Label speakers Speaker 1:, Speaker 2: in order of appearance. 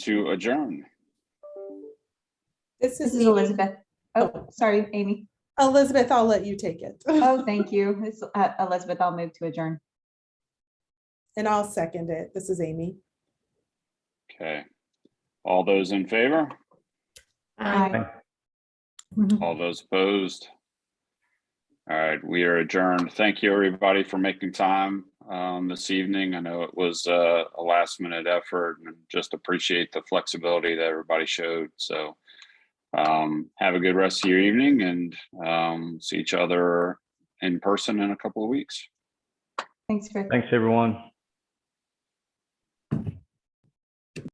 Speaker 1: to adjourn.
Speaker 2: This
Speaker 3: This
Speaker 2: is
Speaker 3: is Elizabeth. Oh, sorry, Amy.
Speaker 2: Elizabeth, I'll let you take it.
Speaker 3: Oh, thank you. This is uh, Elizabeth. I'll move to adjourn.
Speaker 2: And I'll second it. This is Amy.
Speaker 1: Okay. All those in favor?
Speaker 3: Aye. Mm-hmm.
Speaker 1: All those opposed? All right, we are adjourned. Thank you, everybody, for making time um, this evening. I know it was uh, a last minute effort and just appreciate the flexibility that everybody showed. So um, have a good rest of your evening and um, see each other in person in a couple of weeks.
Speaker 3: Thanks, Rick.
Speaker 4: Thanks, everyone.